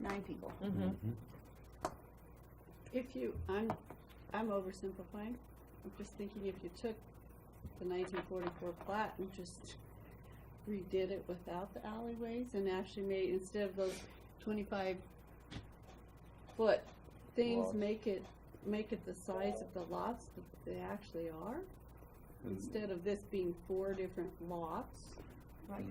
nine people. If you, I'm, I'm oversimplifying. I'm just thinking if you took the nineteen forty-four plat and just redid it without the alleyways and actually made, instead of those twenty-five foot things, Lots. make it, make it the size of the lots that they actually are. Instead of this being four different lots, Right.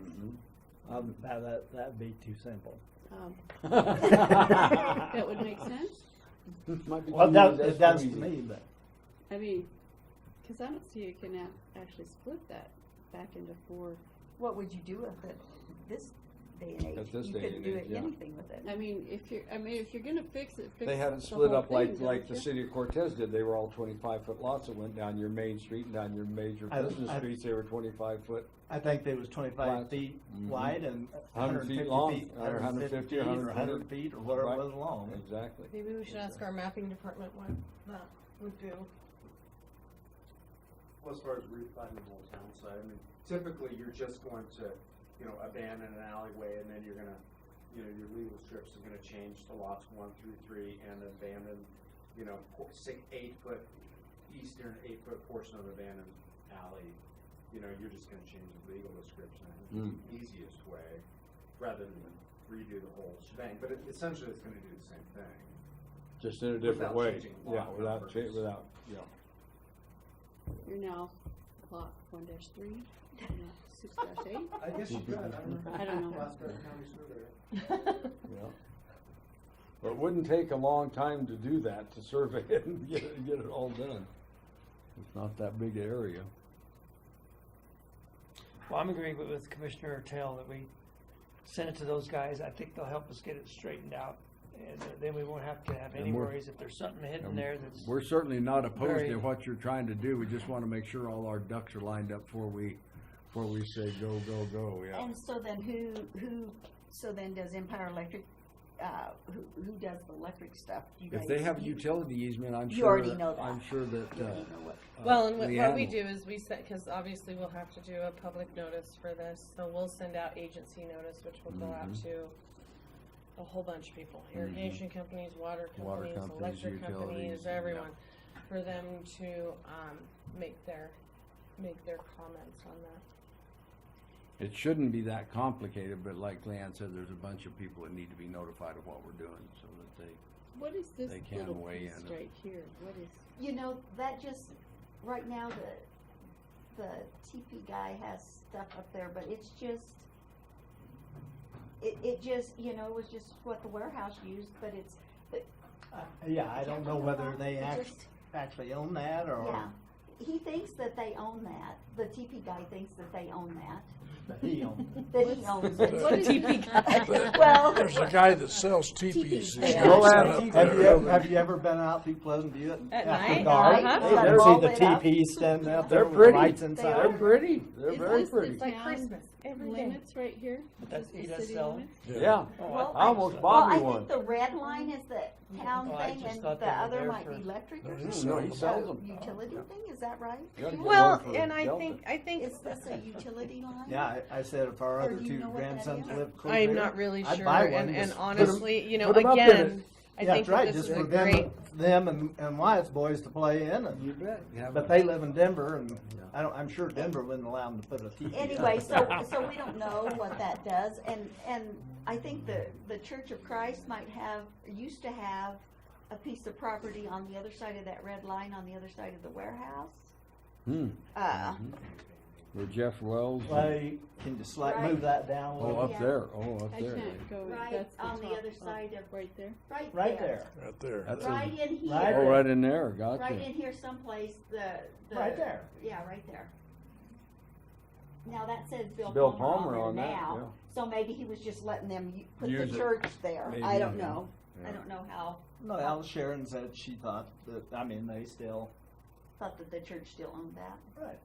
Um, now that, that'd be too simple. um, Well, that would make sense. Might be too that, easy, that's, too to easy. me, but I mean, cause I don't see you can a- actually split that back into four What would you do with it this day and age? At this You day couldn't and do age, yeah. anything with it. I mean, if you're, I mean, if you're gonna fix it, fix They haven't the split whole up like, thing, like the don't you? city of Cortez did, they were all twenty-five foot lots that went down your main street and down your major I- business I- streets, they were twenty-five foot, I think there was twenty-five Right. feet Mhm. wide and Hundred hundred feet fifty long, feet. or 150, feet, 100 Or hundred feet, or whatever Right. it was long. exactly. Maybe we should ask our mapping department what that would do. Uh, Well, as far as refundable town side, I mean, typically you're just going to, you know, abandon an alleyway and then you're gonna, you know, your legal strips are gonna change to lots one through three and abandon, you know, po- six, eight foot, eastern eight foot portion of abandoned alley. You know, you're just gonna change the legal description, I think it's the easiest way, rather than redo the whole shebang, but it- essentially it's gonna do the same thing. Just in a different Without way, changing lot yeah, without, cha- numbers. without, yeah. You're now lot one dash three, and lot six dash eight. I guess you could, I don't know. I don't know. Glasgow County Surveyor. Yeah. But it wouldn't take a long time to do that, to survey it and get it, get it all done. It's not that big an area. Well, I'm agreeing with- with Commissioner Tell that we send it to those guys. I think they'll help us get it straightened out. And then we won't have to have any And we're- worries if there's something hidden and there that's, We're certainly not opposed to Very- what you're trying to do, we just wanna make sure all our ducks are lined up before we, before we say go, go, go, yeah. And so then who, who, so then does Empire Electric, uh, who, who does the electric stuff? You If guys- they have a you- utility easement, I'm sure. You already know that. I'm sure that, You uh. already know what- uh, Well, and what, what we Leanne- do is we set, because obviously we'll have to do a public notice for this, so we'll send out agency notice, which will go out Mhm. to a whole bunch of people, irrigation companies, water Mm-hmm. Water companies, companies, electric utilities, companies, yeah. everyone, for them to, um, make their, make their comments on that. It shouldn't be that complicated, but like Leanne said, there's a bunch of people that need to be notified of what we're doing, so that they. What is this They can little weigh piece in. right here? What is, You know, that just, right now, the, the TP guy has stuff up there, but it's just, it, it just, you know, it was just what the warehouse used, but it's, Uh, Yeah, I don't know whether they It act, just- actually own that yeah. or He thinks that they own that, the TP guy thinks that they own that, he owns that he owns it. what is But Well, There's a guy that sells teepees. Teepees, He's yeah. it. Go got out- set up Have you, there. ever- have you ever been out through Pleasant View At after night? dark? Uh-huh. You ever All see lit the up. teepees standing out there They're with pretty. lights They inside? are. They're pretty, they're Is very this the pretty. It's like Like Sounds Christmas, Christmas, every day. limits right here? that's, Just the that's city selling. limits? Yeah, Oh, Well, I almost Well, bought I me one. think the red line is the town Oh, I thing, just and the thought they were other there might for- be electric No, or he something. Mm-hmm. sells them. So, Utility thing, is that right? Gotta get one Well, for the and I Delta. think, I think. Is this a utility line? Yeah, I, I said if our Or other do you two know what that grandsons is? lived close I'm here, not really I'd sure, buy one, and, and just put 'em- honestly, you know, put 'em up in again, it. I Yeah, think that's right, that this just is a for them, great them and, and Wyatt's boys to play in, and, You bet. You have but a- they live in Denver, and Yeah. I don't, I'm sure Denver wouldn't allow them to put a teepee. up. Anyway, so, so we don't know what that does, and, and I think the, the Church of Christ might have, used to have a piece of property on the other side of that red line, on the other side of the warehouse. Hmm, Uh, where Jeff Wells, Well, you can just like Right. move that down a oh, little, up there, oh, up I there. can't go, Right, that's the on the top other of- side of- Right there. right there. right there, Right there. That's Right a, in Right oh, here, right in there, right gotcha. in here someplace, the, the. right there. Yeah, right there. Now, that says Bill Bill Palmer Palmer on on there that, yeah. now, so maybe he was just letting them u- put the Use it. church there, I Maybe, don't yeah. know, I Yeah. don't know how, No, Al Sharon said she thought that, I mean, they still, thought that the church still owned that, right,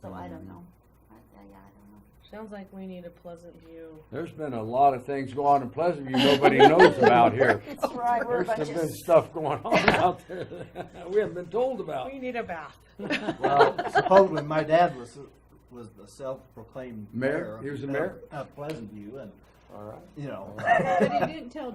so I don't Mhm. know. I, I, yeah, I don't know. Sounds like we need a pleasant view. There's been a lot of things go on in Pleasant View nobody knows about here. That's right, we're a There's bunch been of, stuff going on out there that we haven't been told about. We need a bath. well, supposedly my dad was, was the self-proclaimed Mayor? mayor. of- He was the mayor? Of Pleasant View, and, All right. you know. But he didn't tell